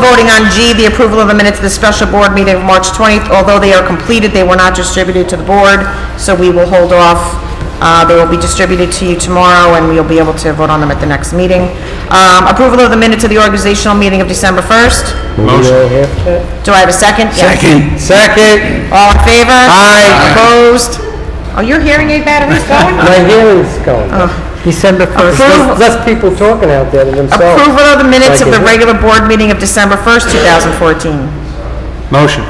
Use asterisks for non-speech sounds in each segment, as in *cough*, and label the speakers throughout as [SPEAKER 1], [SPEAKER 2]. [SPEAKER 1] voting on G, the approval of the minutes of the special board meeting of March 20th. Although they are completed, they were not distributed to the board, so we will hold off. Uh, They will be distributed to you tomorrow, and we'll be able to vote on them at the next meeting. Um, Approval of the minutes of the organizational meeting of December 1st. Do I have a second? Yes.
[SPEAKER 2] Second. Second.
[SPEAKER 1] All in favor?
[SPEAKER 2] Aye.
[SPEAKER 1] Opposed? Oh, your hearing aid battery's
[SPEAKER 2] *laughs*
[SPEAKER 1] going?
[SPEAKER 3] My hearing's going. December 1st.
[SPEAKER 1] Approve-
[SPEAKER 3] Less less people talking out there than themselves.
[SPEAKER 1] Approval of the minutes of the
[SPEAKER 3] Second.
[SPEAKER 1] regular board meeting of December 1st, 2014.
[SPEAKER 2] Motion.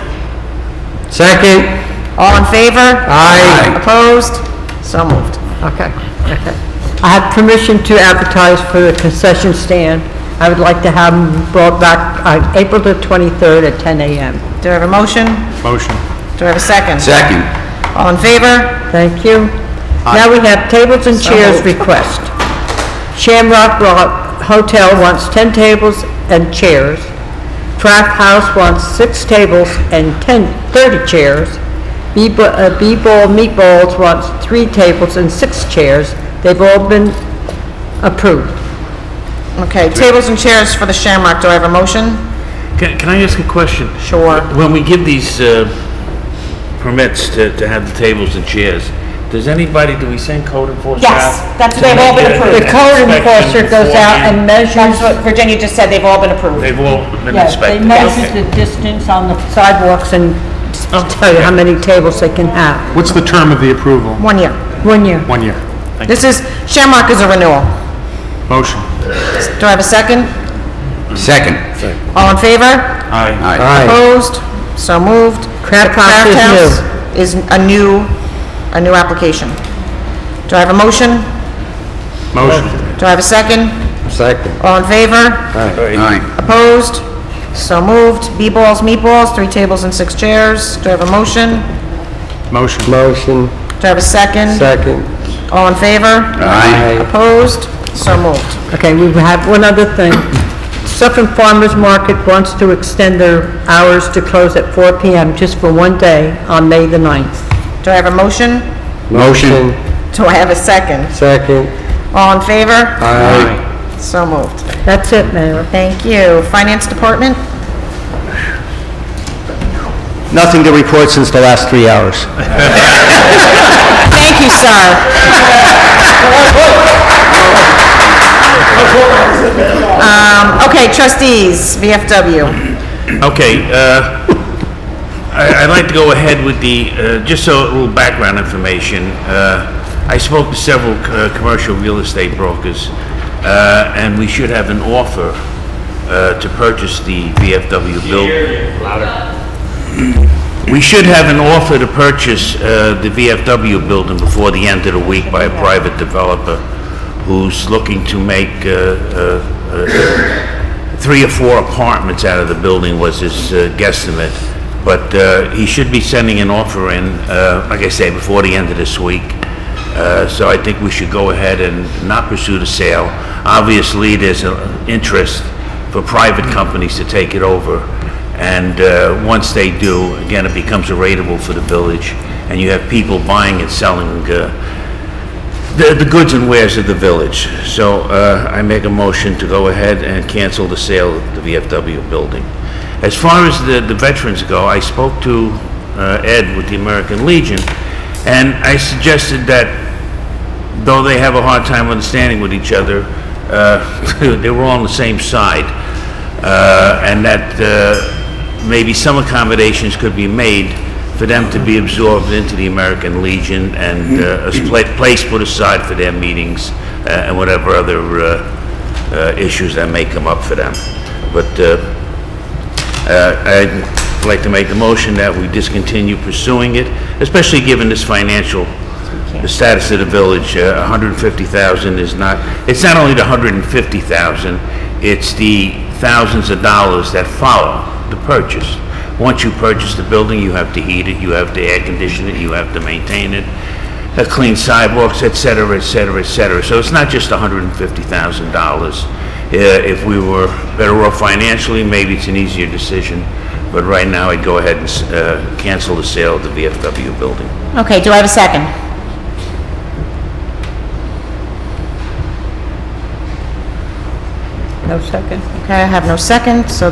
[SPEAKER 2] Second.
[SPEAKER 1] All in favor?
[SPEAKER 2] Aye.
[SPEAKER 1] Opposed? So moved.
[SPEAKER 4] Okay, okay. I have permission to advertise for the concession stand. I would like to have them brought back on April the 23rd at 10 a.m.
[SPEAKER 1] Do I have a motion?
[SPEAKER 2] Motion.
[SPEAKER 1] Do I have a second?
[SPEAKER 2] Second.
[SPEAKER 1] All in favor?
[SPEAKER 4] Thank you. Now we have tables and chairs request. Shamrock Ro- Hotel wants 10 tables and chairs. Craft House wants six tables and 10, 30 chairs. B-Bo- uh, B-Bowl Meatballs wants three tables and six chairs. They've all been approved.
[SPEAKER 1] Okay, tables and chairs for the Shamrock, do I have a motion?
[SPEAKER 5] Can, can I ask a question?
[SPEAKER 1] Sure.
[SPEAKER 5] When we give these, uh, permits to, to have the tables and chairs, does anybody, do we send code enforcement out?
[SPEAKER 1] Yes, that's-
[SPEAKER 5] to
[SPEAKER 1] they've all
[SPEAKER 5] make
[SPEAKER 1] been
[SPEAKER 5] a-
[SPEAKER 1] approved.
[SPEAKER 4] The code
[SPEAKER 5] an
[SPEAKER 4] enforcer
[SPEAKER 5] inspection
[SPEAKER 4] goes out
[SPEAKER 5] beforehand?
[SPEAKER 4] and measures,
[SPEAKER 1] That's what Virginia just said, they've all been approved.
[SPEAKER 5] They've all been
[SPEAKER 4] yes, they
[SPEAKER 5] inspected?
[SPEAKER 4] measure
[SPEAKER 5] Okay.
[SPEAKER 4] the distance on the sidewalks and tell you how many tables they can have.
[SPEAKER 2] What's the term of the approval?
[SPEAKER 1] One year.
[SPEAKER 4] One year.
[SPEAKER 2] One year.
[SPEAKER 1] This is, Shamrock is a renewal.
[SPEAKER 2] Motion.
[SPEAKER 1] Do I have a second?
[SPEAKER 2] Second.
[SPEAKER 1] All in favor?
[SPEAKER 5] Aye.
[SPEAKER 2] Aye.
[SPEAKER 1] Opposed? So moved.
[SPEAKER 4] Craft
[SPEAKER 1] The
[SPEAKER 4] House is new.
[SPEAKER 1] Is a new, a new application. Do I have a motion?
[SPEAKER 2] Motion.
[SPEAKER 1] Do I have a second?
[SPEAKER 2] Second.
[SPEAKER 1] All in favor?
[SPEAKER 2] Aye.
[SPEAKER 1] Opposed? So moved. B-Balls Meatballs, three tables and six chairs. Do I have a motion?
[SPEAKER 2] Motion.
[SPEAKER 3] Motion,
[SPEAKER 1] Do I have a second?
[SPEAKER 3] second.
[SPEAKER 1] All in favor?
[SPEAKER 2] Aye.
[SPEAKER 1] Opposed? So moved.
[SPEAKER 4] Okay, we have one other thing. Suffolk Farmers Market wants to extend their hours to close at 4 p.m. just for one day on May the 9th.
[SPEAKER 1] Do I have a motion?
[SPEAKER 2] Motion.
[SPEAKER 1] Do I have a second?
[SPEAKER 3] Second.
[SPEAKER 1] All in favor?
[SPEAKER 2] Aye.
[SPEAKER 1] So moved.
[SPEAKER 4] That's it, Mayor.
[SPEAKER 1] Thank you. Finance Department?
[SPEAKER 2] Nothing to report since the last three hours.
[SPEAKER 1] Thank you, sir. Um, Okay, trustees, VFW.
[SPEAKER 5] Okay, uh, I- I'd like to go ahead with the, uh, just so, a little background information. Uh, I spoke to several uh, commercial real estate brokers, uh, and we should have an offer uh, to purchase the VFW building. We should have an offer to purchase uh, the VFW building before the end of the week by a private developer who's looking to make uh, uh, three or four apartments out of the building was his uh, guesstimate, but uh, he should be sending an offer in, uh, like I say, before the end of this week. Uh, So I think we should go ahead and not pursue the sale. Obviously, there's an interest for private companies to take it over, and uh, once they do, again, it becomes a rateable for the village, and you have people buying and selling uh, the, the goods and wares of the village. So uh, I make a motion to go ahead and cancel the sale of the VFW building. As far as the, the veterans go, I spoke to uh, Ed with the American Legion, and I suggested that though they have a hard time understanding with each other, uh, *laughs* they were all on the same side. Uh, and that uh, maybe some accommodations could be made for them to be absorbed into the American Legion and uh, a spla- place put aside for their meetings uh, and whatever other uh, uh, issues that may come up for them. But uh, I'd like to make the motion that we discontinue pursuing it, especially given this financial, the status of the village, uh, 150,000 is not, it's not only the 150,000, it's the thousands of dollars that follow the purchase. Once you purchase the building, you have to heat it, you have to air condition it, you have to maintain it, uh, clean sidewalks, et cetera, et cetera, et cetera. So it's not just $150,000. Uh, If we were better off financially, maybe it's an easier decision, but right now I'd go ahead and s- uh, cancel the sale of the VFW building.
[SPEAKER 1] Okay, do I have a second?
[SPEAKER 4] No second?
[SPEAKER 1] Okay, I have no second, so